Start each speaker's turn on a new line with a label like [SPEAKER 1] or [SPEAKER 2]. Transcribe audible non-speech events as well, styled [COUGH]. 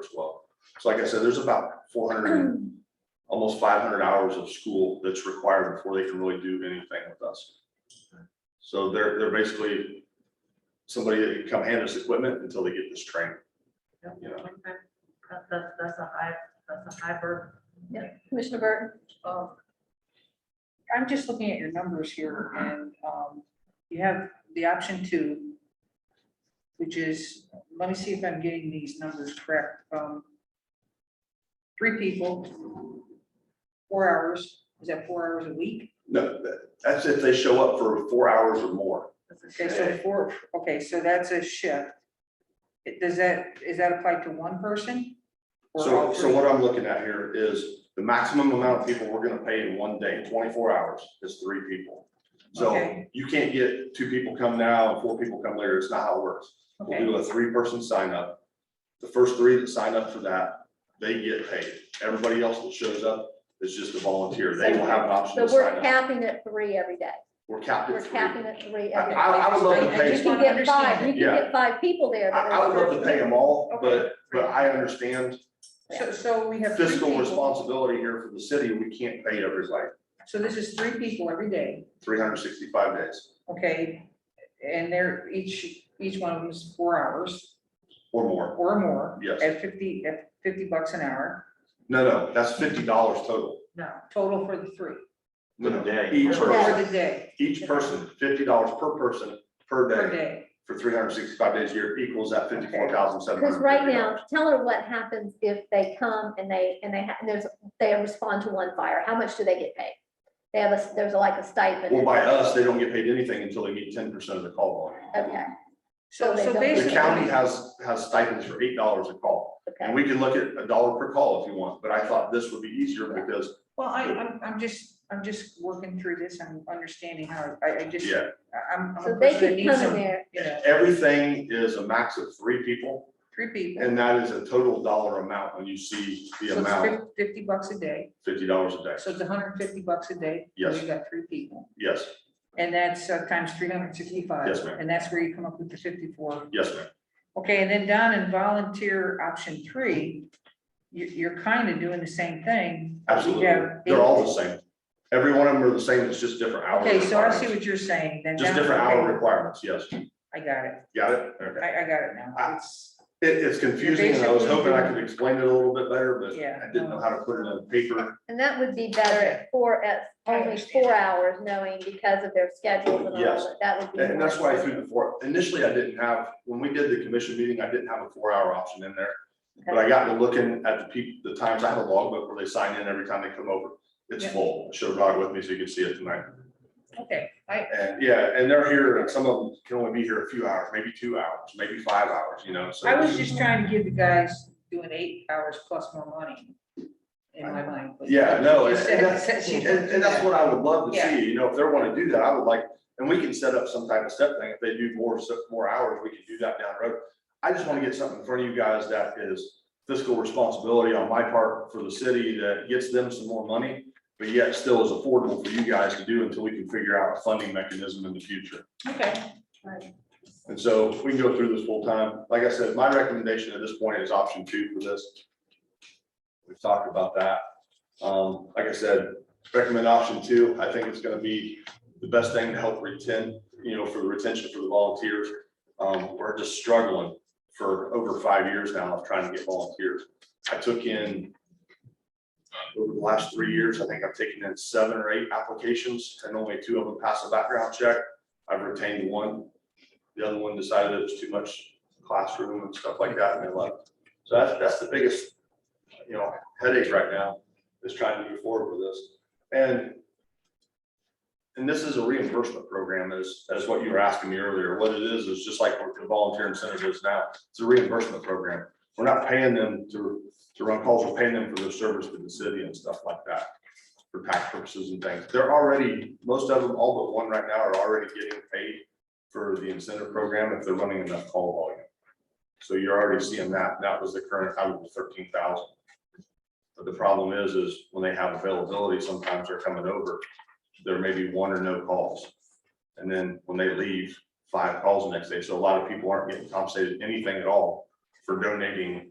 [SPEAKER 1] as well. So like I said, there's about four hundred,
[SPEAKER 2] [CLEARS THROAT]
[SPEAKER 1] almost five hundred hours of school that's required before they can really do anything with us. So they're, they're basically somebody that can come hand us equipment until they get this training.
[SPEAKER 3] Yep.
[SPEAKER 1] You know,
[SPEAKER 3] Okay. That, that's, that's a high, that's a high burden.
[SPEAKER 4] Commissioner Burton?
[SPEAKER 2] Um, I'm just looking at your numbers here and um, you have the option two, which is, let me see if I'm getting these numbers correct. Um, Three people, four hours, is that four hours a week?
[SPEAKER 1] no, that- that's if they show up for four hours or more.
[SPEAKER 2] Okay, so four, okay, so that's a shift. It- Does that, is that applied to one person? or
[SPEAKER 1] So,
[SPEAKER 2] all
[SPEAKER 1] so
[SPEAKER 2] three?
[SPEAKER 1] what I'm looking at here is the maximum amount of people we're gonna pay in one day, twenty-four hours, is three people. So
[SPEAKER 2] Okay.
[SPEAKER 1] you can't get two people come now and four people come later. It's not how it works. We'll
[SPEAKER 2] Okay,
[SPEAKER 1] do a three-person sign up. The first three that sign up for that, they get paid. Everybody else that shows up is just a volunteer. They will have an option to
[SPEAKER 4] But
[SPEAKER 1] sign
[SPEAKER 4] we're
[SPEAKER 1] up.
[SPEAKER 4] capping at three every day.
[SPEAKER 1] We're capped
[SPEAKER 4] We're
[SPEAKER 1] at three. I,
[SPEAKER 4] capping at three every day.
[SPEAKER 1] I would love to
[SPEAKER 2] I- I
[SPEAKER 4] You
[SPEAKER 1] pay,
[SPEAKER 2] just
[SPEAKER 4] can
[SPEAKER 2] wanna
[SPEAKER 4] get five, you
[SPEAKER 2] understand
[SPEAKER 4] can get five people there.
[SPEAKER 1] I,
[SPEAKER 4] but
[SPEAKER 1] I would love to pay them all, but,
[SPEAKER 2] Okay.
[SPEAKER 1] but I understand
[SPEAKER 2] so, so we have. three
[SPEAKER 1] fiscal
[SPEAKER 2] people.
[SPEAKER 1] responsibility here for the city. We can't pay everybody
[SPEAKER 2] So this is three people every day.
[SPEAKER 1] three hundred sixty-five days
[SPEAKER 2] Okay, and they're each, each one of them is four hours
[SPEAKER 1] or more.
[SPEAKER 2] or more.
[SPEAKER 1] Yes.
[SPEAKER 2] At fifty, at fifty bucks an hour,
[SPEAKER 1] No, no, that's fifty dollars total.
[SPEAKER 3] No,
[SPEAKER 2] total for the three,
[SPEAKER 1] No, no,
[SPEAKER 5] Per day.
[SPEAKER 1] Each
[SPEAKER 2] for
[SPEAKER 1] person,
[SPEAKER 2] the day,
[SPEAKER 1] each person, fifty dollars per person, per
[SPEAKER 2] per
[SPEAKER 1] day.
[SPEAKER 2] day.
[SPEAKER 1] for three hundred sixty-five days a year equals that fifty-four thousand seven hundred.
[SPEAKER 4] Because right now, tell her what happens if they come and they, and they, ha- and there's, they respond to one fire. How much do they get paid? They have a, s- there's like a stipend.
[SPEAKER 1] Well, by us, they don't get paid anything until they meet ten percent of the call volume.
[SPEAKER 4] Okay, So
[SPEAKER 2] So,
[SPEAKER 4] they
[SPEAKER 2] so
[SPEAKER 4] don't-
[SPEAKER 1] The
[SPEAKER 2] basically.
[SPEAKER 1] county has, has stipends for eight dollars a call, and
[SPEAKER 4] okay.
[SPEAKER 1] we can look at a dollar per call if you want, but I thought this would be easier because,
[SPEAKER 2] Well, I, I'm, I'm just, I'm just working through this, I'm understanding how, I, I just, I-
[SPEAKER 1] yeah.
[SPEAKER 2] I'm, I'm
[SPEAKER 4] So
[SPEAKER 2] a
[SPEAKER 4] they
[SPEAKER 2] person that
[SPEAKER 4] could
[SPEAKER 2] needs
[SPEAKER 4] come in
[SPEAKER 2] some,
[SPEAKER 4] there,
[SPEAKER 2] you know,
[SPEAKER 1] Everything is a max of three people,
[SPEAKER 2] three people.
[SPEAKER 1] and that is a total dollar amount when you see the
[SPEAKER 2] So it's
[SPEAKER 1] amount,
[SPEAKER 2] fif- Fifty bucks a day,
[SPEAKER 1] fifty dollars a day,
[SPEAKER 2] so it's hundred and fifty bucks a day.
[SPEAKER 1] Yes.
[SPEAKER 2] We've got three people,
[SPEAKER 1] yes,
[SPEAKER 2] and that's uh, times three hundred and sixty-five.
[SPEAKER 1] Yes, ma'am.
[SPEAKER 2] And that's where you come up with the fifty-four
[SPEAKER 1] yes, ma'am.
[SPEAKER 2] Okay, and then down in volunteer option three, you, you're kind of doing the same thing. but you
[SPEAKER 1] Absolutely,
[SPEAKER 2] have
[SPEAKER 1] they're all the
[SPEAKER 2] eight-
[SPEAKER 1] same, every one of them are the same, it's just different hours.
[SPEAKER 2] Okay, so I see what you're saying, then.
[SPEAKER 1] Just
[SPEAKER 2] down-
[SPEAKER 1] different hour
[SPEAKER 2] okay,
[SPEAKER 1] requirements, yes,
[SPEAKER 2] I got it,
[SPEAKER 1] got it, okay.
[SPEAKER 2] I, I got it now,
[SPEAKER 1] I-
[SPEAKER 2] it's,
[SPEAKER 1] It, it's confusing, and I was
[SPEAKER 2] Basically-
[SPEAKER 1] hoping I could explain it a little bit better, but
[SPEAKER 2] Yeah.
[SPEAKER 1] I didn't know how to put it on paper.
[SPEAKER 4] and that would be better at four, at
[SPEAKER 2] I
[SPEAKER 4] only
[SPEAKER 2] understand.
[SPEAKER 4] four hours, knowing because of their schedules and all
[SPEAKER 1] Yes.
[SPEAKER 4] that, that would be.
[SPEAKER 1] And that's why I
[SPEAKER 4] more-
[SPEAKER 1] threw the four, initially I didn't have, when we did the commission meeting, I didn't have a four-hour option in there. But I got to looking at the people, the times, I have a logbook where they sign in every time they come over. It's
[SPEAKER 2] Yeah.
[SPEAKER 1] full, I should have brought it with me so you could see it tonight.
[SPEAKER 2] okay, I,
[SPEAKER 1] And yeah, and they're here, and some of them can only be here a few hours, maybe two hours, maybe five hours, you know, so.
[SPEAKER 2] I was just trying to give the guys doing eight hours plus more money in my mind. but-
[SPEAKER 1] Yeah, no,
[SPEAKER 2] You
[SPEAKER 1] and
[SPEAKER 2] said-
[SPEAKER 1] and that's,
[SPEAKER 2] [LAUGHS] said she
[SPEAKER 1] and
[SPEAKER 2] didn't do
[SPEAKER 1] and that's
[SPEAKER 2] that.
[SPEAKER 1] what I would love to
[SPEAKER 2] Yeah.
[SPEAKER 1] see, you know, if they wanna do that, I would like, and we can set up some type of step thing, if they do more, se- more hours, we can do that down the road. I just wanna get something in front of you guys that is fiscal responsibility on my part for the city that gets them some more money, but yet still is affordable for you guys to do until we can figure out a funding mechanism in the future.
[SPEAKER 2] Okay,
[SPEAKER 1] And so we can go through this full time. Like I said, my recommendation at this point is option two for this. We've talked about that. Um, like I said, recommend option two. I think it's gonna be the best thing to help retain, you know, for the retention for the volunteers. Um, we're just struggling for over five years now of trying to get volunteers. I took in uh, over the last three years, I think I've taken in seven or eight applications and only two of them pass a background check. I've retained one. The other one decided it was too much classroom and stuff like that, and they left. So that's, that's the biggest, you know, headache right now, is trying to move forward with this. And, and this is a reimbursement program, as, as what you were asking me earlier. What it is, is just like what the volunteer incentive is now, it's a reimbursement program. We're not paying them to, to run calls, we're paying them for their service to the city and stuff like that, for tax purposes and things. They're already, most of them, all but one right now, are already getting paid for the incentive program if they're running enough call volume. So you're already seeing that, that was the current, I was thirteen thousand. But the problem is, is when they have availability, sometimes they're coming over, there may be one or no calls. And then when they leave, five calls the next day, so a lot of people aren't getting compensated anything at all for donating